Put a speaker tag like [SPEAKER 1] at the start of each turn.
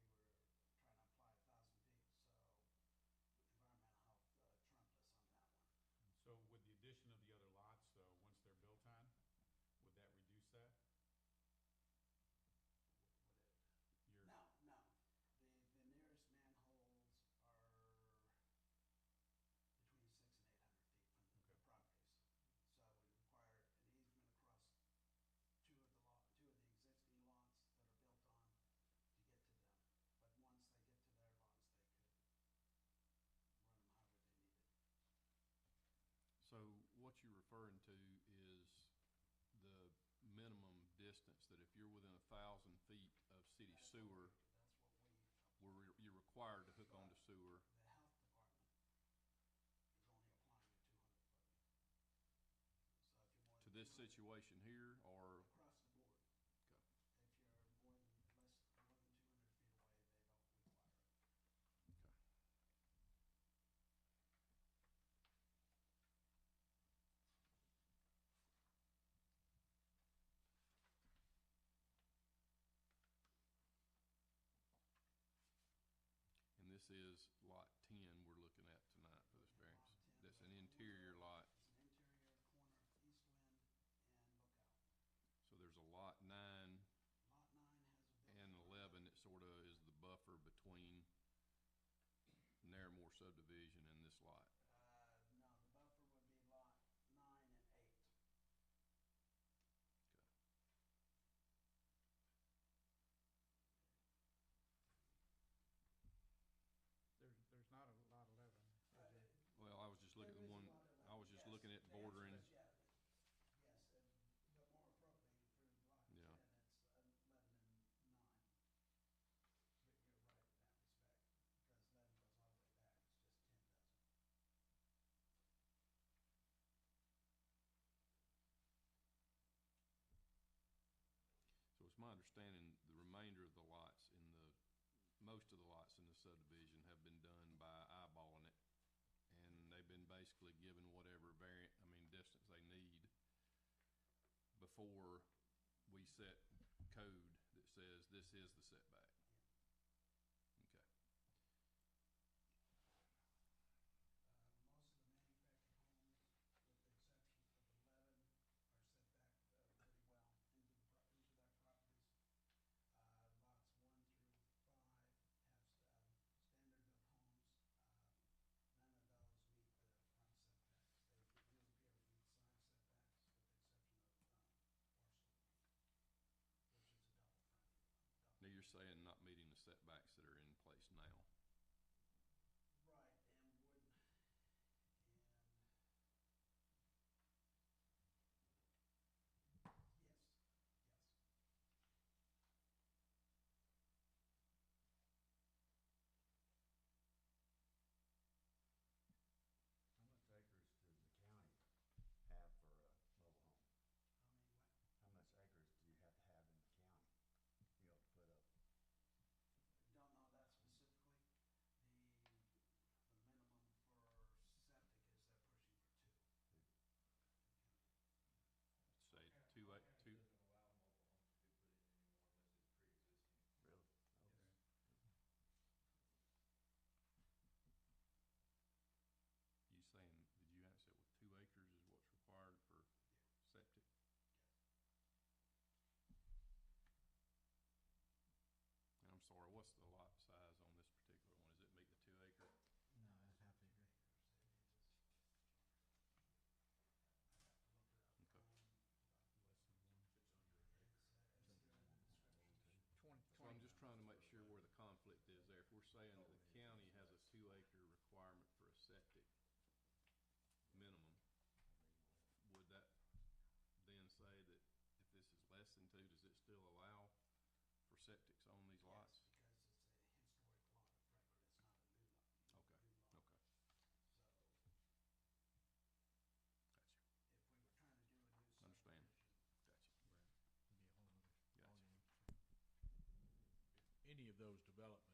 [SPEAKER 1] uh,
[SPEAKER 2] referring to is the minimum distance, that if you're within a thousand feet of city sewer,
[SPEAKER 1] That's what we,
[SPEAKER 2] where you're required to hook onto sewer,
[SPEAKER 1] the health department is only applying the two hundred foot. So if you're more
[SPEAKER 2] to
[SPEAKER 1] than
[SPEAKER 2] this
[SPEAKER 1] 200
[SPEAKER 2] situation here, or,
[SPEAKER 1] Across the board.
[SPEAKER 2] Okay.
[SPEAKER 1] If you're more than, less, more than two hundred feet away, they don't require it.
[SPEAKER 2] okay. And this is lot ten we're looking at tonight for this variance. That's an interior lot,
[SPEAKER 1] It's an interior corner, east wind and lookout.
[SPEAKER 2] so there's a lot
[SPEAKER 1] Lot
[SPEAKER 2] nine
[SPEAKER 1] nine has a building.
[SPEAKER 2] and eleven that sort of is the buffer between Narramore subdivision and this lot.
[SPEAKER 1] Uh, no, the buffer would be lot nine and eight.
[SPEAKER 2] Okay.
[SPEAKER 3] There's, there's not a lot eleven. is
[SPEAKER 1] Uh,
[SPEAKER 3] there?
[SPEAKER 2] Well, I was just looking at the
[SPEAKER 1] There is a
[SPEAKER 2] one,
[SPEAKER 1] lot of-
[SPEAKER 2] I was just
[SPEAKER 1] yes,
[SPEAKER 2] looking at
[SPEAKER 1] the answer
[SPEAKER 2] bordering,
[SPEAKER 1] is yeah. Yes, and- but more appropriately for block ten,
[SPEAKER 2] Yeah.
[SPEAKER 1] it's eleven and nine. But you're right in that respect, because eleven goes all the way back, it's just ten doesn't.
[SPEAKER 2] so it's my understanding, the remainder of the lots in the, most of the lots in the subdivision have been done by eyeballing it. And they've been basically given whatever variant, I mean, distance they need before we set code that says this is the setback. Okay.
[SPEAKER 1] Uh, most of the manufactured homes, with the exception of eleven, are set back uh, pretty well into the, pro- into their properties. Uh, lots one through five have, um, standard built homes, uh, none of those meet the front setbacks. They do appear to meet side setbacks, with the exception of, um, parcel, which is a double front. double- Right, and would, and. Yes,
[SPEAKER 2] Now, you're saying not meeting the setbacks that are in place now.
[SPEAKER 1] yes.
[SPEAKER 4] How much acres does the county have for a mobile home?
[SPEAKER 1] How many, what?
[SPEAKER 4] How much acres do you have to have in the county, you know, to put up?
[SPEAKER 1] Don't know that specifically. The, the minimum for septic is they're pushing for two.
[SPEAKER 4] Two.
[SPEAKER 2] Say two, eight, two,
[SPEAKER 5] Doesn't allow mobile homes to be put in anymore unless it's pre-existing.
[SPEAKER 4] Really? Okay.
[SPEAKER 2] you saying, did you answer it with two acres is
[SPEAKER 1] Yeah.
[SPEAKER 2] what's required for septic? And I'm sorry, what's the lot size on this particular one? Does it meet the two acre?
[SPEAKER 4] No, it's half acre.
[SPEAKER 1] I have to look it up. It's,
[SPEAKER 2] Okay.
[SPEAKER 1] uh, it's there in the description.
[SPEAKER 3] Twenty,
[SPEAKER 2] So I'm
[SPEAKER 3] twenty,
[SPEAKER 2] just trying to make sure where the conflict is there. If we're saying that the county has a two acre requirement for a septic minimum, would that then say that if this is less than two, does it still allow for septics on these lots?
[SPEAKER 1] Yes, because it's a historic lot of record, it's not a new lot.
[SPEAKER 2] Okay,
[SPEAKER 1] new lot. So if we were trying to do a new subdivision,
[SPEAKER 2] okay, gotcha, Understand. gotcha,
[SPEAKER 6] Right, it'd be
[SPEAKER 2] gotcha.
[SPEAKER 6] a whole other ballgame. If Any of those developments